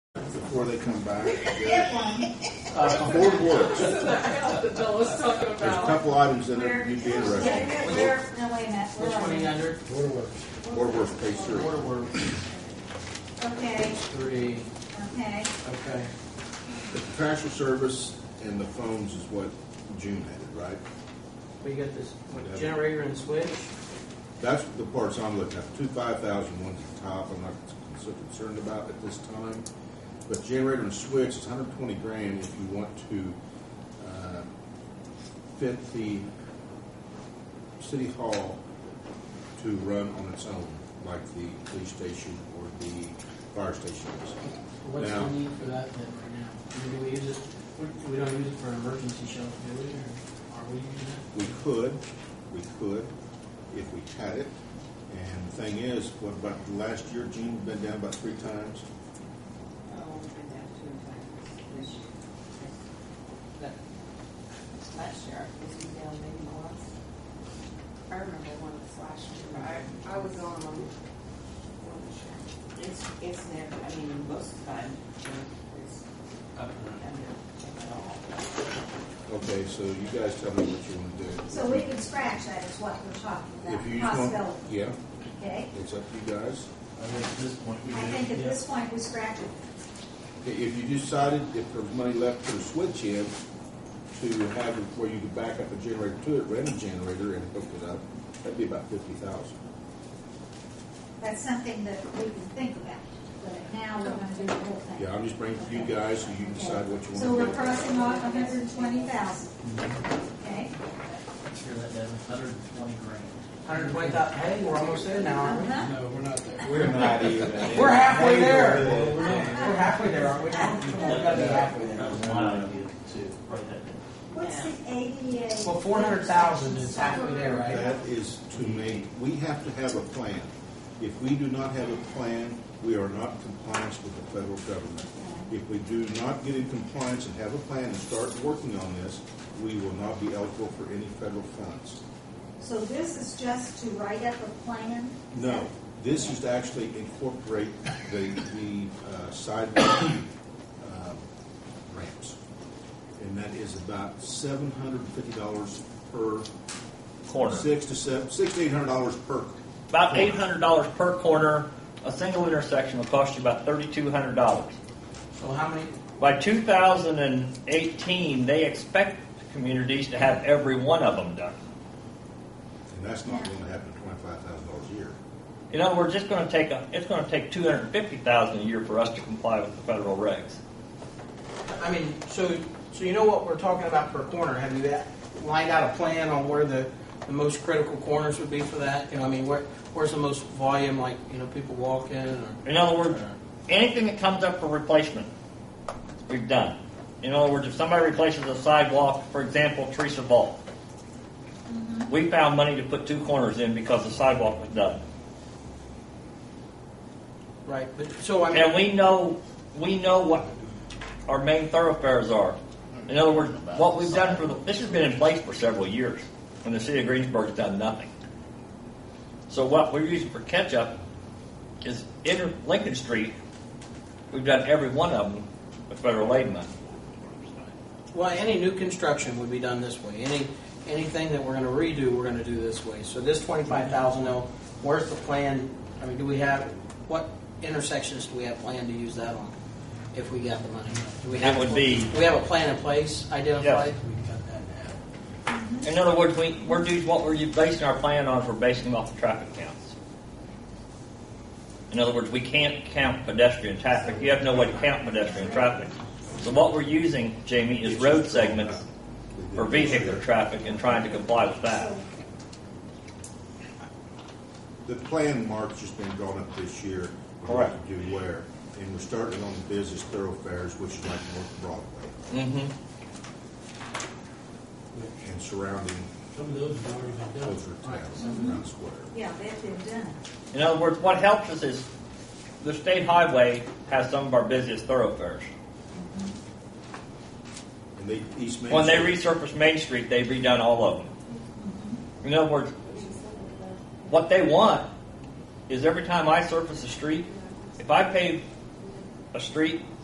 before they come back. Uh, board works. That Bill was talking There's a about. couple items that are- you'd be interested in. We're, no, wait a minute. We're Which on one are you it. under? Water Works. Board works, page three. Water Works, Okay, three, okay. okay. The contractual service and the phones is what June had, right? We got this, what, Yeah. generator and switch? That's the parts I'm looking at, two five thousand ones at the top, I'm not so concerned about at this time. But generator and switch is hundred twenty grand if you want to, uh, fit the city hall to run on its own, like the police station or the fire station is. What's Yeah. the need for that then right now? I mean, Do we use it, we- we don't use it for emergency shelter, do we, or are we using it? We could, we could, if we had it. And the thing is, what about the last year, Gene, been down about three times? Last year, I was down maybe once. I remember one of the last year, but I, I was on them. It's, it's never, I mean, most of the time, you know, it's Up and running. under at all. Okay, so you guys tell me what you want to do. So we can scratch that is what we're If talking you just about, want- possibility, Yeah, okay? it's up to you guys. I think at this point, we I did. think at Yeah. this point, we scratch it. I- If you decided if there's money left for the switch in, to have it where you could back up a generator to it, rent a generator and hook it up, that'd be about fifty thousand. That's something that we can think about, but now we're gonna do the whole thing. Yeah, I'm just bringing it to you guys so you can decide what you So want we're to do. crossing off hundred and twenty thousand, okay? Let's hear that, Devin, hundred and twenty grand. Hundred twenty thousand, hey, we're almost there now, aren't we? Uh-huh. No, we're not there. We're not even. We're halfway there. We're not. We're halfway there, aren't we? We've got to be halfway there. That was one idea too, right there. What's the ADA? Well, four hundred thousand is halfway there, right? That is to me, we have to have a plan. If we do not have a plan, we are not in compliance with the federal government. If we do not get in compliance and have a plan and start working on this, we will not be eligible for any federal funds. So this is just to write up a plan? No, this is to actually incorporate the, the uh, sidewalk um, ramps. And that is about seven hundred and fifty dollars per. Corner. Six to seven, six to eight hundred dollars per. About corner. eight hundred dollars per corner. A single intersection will cost you about thirty-two hundred dollars. So how many, By two thousand and eighteen, they expect communities to have every one of them done. And that's not going to happen at twenty-five thousand dollars a year. You know, we're just going to take a, it's going to take two hundred fifty thousand a year for us to comply with the federal regs. I mean, so, so you know what we're talking about per corner, have you a- lined out a plan on where the, the most critical corners would be for that? You know, I mean, where, where's the most volume, like, you know, people walking or? In other words, anything that comes up for replacement, we've done. In other words, if somebody replaces a sidewalk, for example, Teresa Vault, we found money to put two corners in because the sidewalk was done. Right, but, so I And mean, we know, we know what our main thoroughfares are. In other words, what we've done for the, this has been in place for several years, and the city of Greensburg's done nothing. So what we're using for catch-up is inter, Lincoln Street, we've done every one of them with federal aid money. well, any new construction would be done this way, any, anything that we're gonna redo, we're gonna do this way. So this twenty-five thousand though, where's the plan, I mean, do we have, what intersections do we have planned to use that on? If we got the money? Do we have It would a- be- Do we have a plan in place identified? We've got that now. In other words, we, we're doing what we're basing our plan on, is we're basing them off the traffic counts. In other words, we can't count pedestrian traffic. You have no way to count pedestrian traffic. So what we're using, Jamie, is road segments for vehicular traffic and trying to comply with that. So The plan, Mark's just been drawn up this year. Correct. What to Do where, and we're starting on the business thoroughfares, which is like North Broadway Mm-hmm. and surrounding Some of those have already been done. closer towns around Square. Yeah, they've been done. In other words, what helps us is the state highway has some of our busiest thoroughfares. And they, East Main. When they Street- resurfaced Main Street, they've redone all of them. In other words, what they want is every time I surface a street, if I pave a street